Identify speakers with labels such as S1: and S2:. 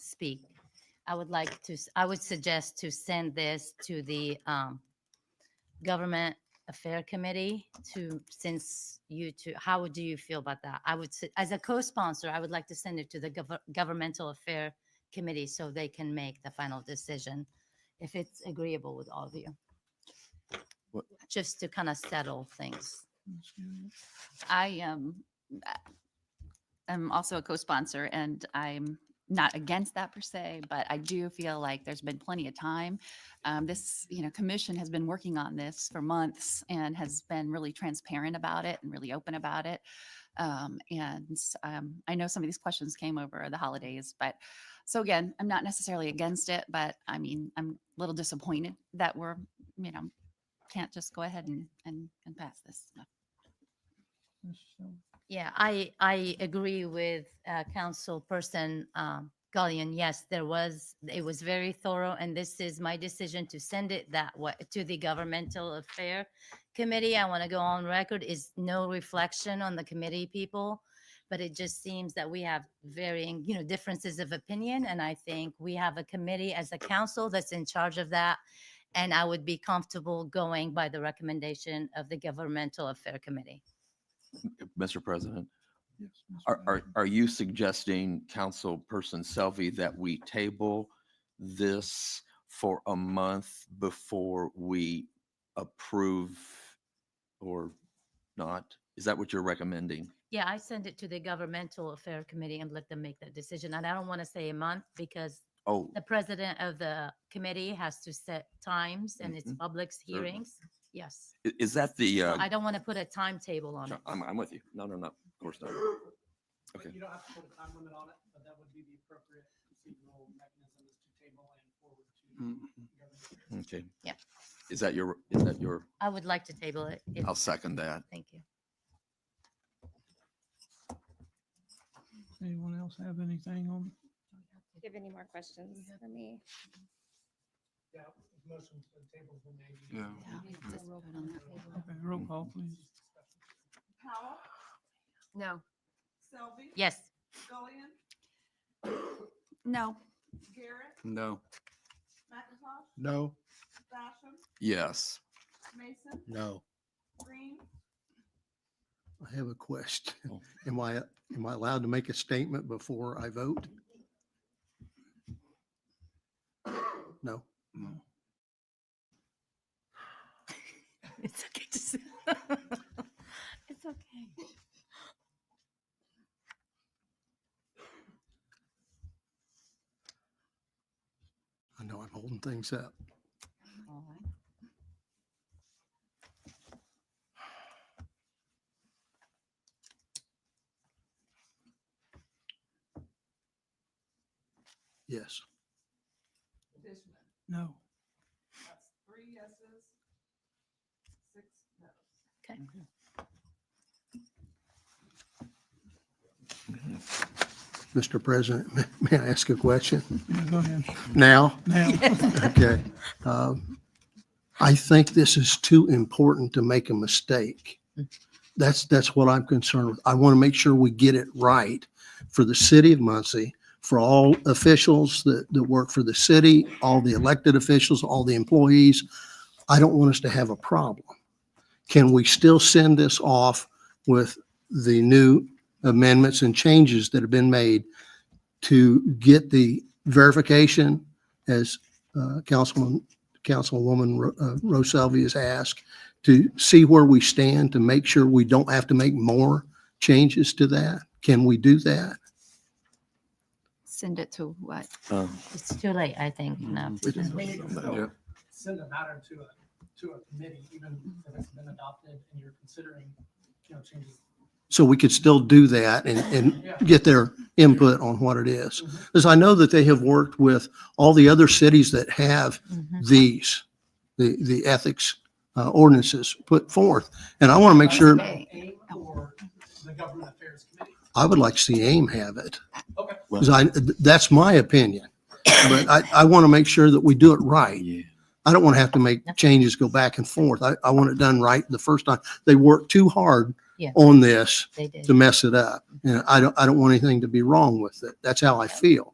S1: speak, I would like to, s- I would suggest to send this to the um, Government Affair Committee to, since you two, how would- do you feel about that? I would, s- as a co-sponsor, I would like to send it to the Gov- Governmental Affair Committee so they can make the final decision, if it's agreeable with all of you.
S2: What-
S1: Just to kind of settle things. I
S3: um, uh, am also a co-sponsor and I'm not against that per se, but I do feel like there's been plenty of time. Um, this, you know, commission has been working on this for months and has been really transparent about it and really open about it. Um, and, um, I know some of these questions came over the holidays, but so again, I'm not necessarily against it, but I mean, I'm a little disappointed that we're, you know, can't just go ahead and, and, and pass this.
S1: Yeah, I, I agree with uh, Councilperson um, Gullion. Yes, there was, it was very thorough, and this is my decision to send it that way to the Governmental Affair Committee. I want to go on record is no reflection on the committee people, but it just seems that we have varying, you know, differences of opinion, and I think we have a committee as a council that's in charge of that, and I would be comfortable going by the recommendation of the Governmental Affair Committee.
S2: Mr. President, are, are, are you suggesting, Councilperson Selby, that we table this for a month before we approve or not? Is that what you're recommending?
S1: Yeah, I send it to the governmental affair committee and let them make that decision. And I don't want to say a month because
S2: Oh,
S1: the president of the committee has to set times and it's
S2: Mhm.
S1: public
S2: Certainly.
S1: hearings. Yes.
S2: i- is that the,
S1: I
S2: uh,
S1: don't want to put a timetable on it.
S2: I'm, I'm with you. No, no, no, of course not.
S4: But
S2: Okay.
S4: You don't have to put a time limit on it, but that would be the appropriate procedural mechanism is to table and forward
S2: Mm-hmm.
S4: to. government.
S2: Okay.
S1: Yeah.
S2: Is that your, is that your,
S1: I would like to table it. if-
S2: I'll second that.
S1: Thank you.
S5: Anyone else have anything on?
S6: Do you have any more questions for me?
S4: Yeah, motions for tables were made.
S2: Yeah.
S5: Okay, roll call,
S2: Mm-hmm.
S5: please.
S7: Powell,
S3: No.
S7: Selby,
S1: Yes.
S7: Gullion,
S3: No.
S7: Garrett,
S8: No.
S7: McIntosh,
S8: No.
S7: Basham,
S2: Yes.
S7: Mason,
S8: No.
S7: Green,
S8: I have a question.
S2: Oh.
S8: Am I, am I allowed to make a statement before I vote? No.
S1: It's okay to say. It's okay.
S8: I know I'm holding things up. Yes.
S7: Dishman.
S5: No.
S7: That's three yeses, six noes.
S1: Okay.
S8: Mr. President, may I ask a question
S5: Yeah, go ahead.
S8: now?
S5: Now,
S8: Okay. Um, I think this is too important to make a mistake. That's, that's what I'm concerned with. I want to make sure we get it right for the city of Muncie, for all officials that, that work for the city, all the elected officials, all the employees. I don't want us to have a problem. Can we still send this off with the new amendments and changes that have been made to get the verification as uh, Councilman, Councilwoman Ro- uh, Roselvi has asked to see where we stand to make sure we don't have to make more changes to that. Can we do that?
S3: Send it to what?
S2: Uh,
S1: It's too late, I think, now.
S2: Yeah.
S4: Send a matter to a, to a committee, even if it's been adopted and you're considering, you know, changes.
S8: So we could still do that and, and get their input on what it is. Because I know that they have worked with all the other cities that have
S1: Mhm.
S8: these, the, the ethics uh, ordinances put forth. And I want to make sure,
S4: AIM or the government affairs committee.
S8: I would like to see AIM have it.
S4: Okay.
S8: 'Cause I, that's my opinion. But I, I want to make sure that we do it right.
S2: Yeah.
S8: I don't want to have to make changes, go back and forth. I, I want it done right the first time. They worked too hard
S1: Yeah.
S8: on this
S1: They did.
S8: to mess it up. And I don't, I don't want anything to be wrong with it. That's how I feel.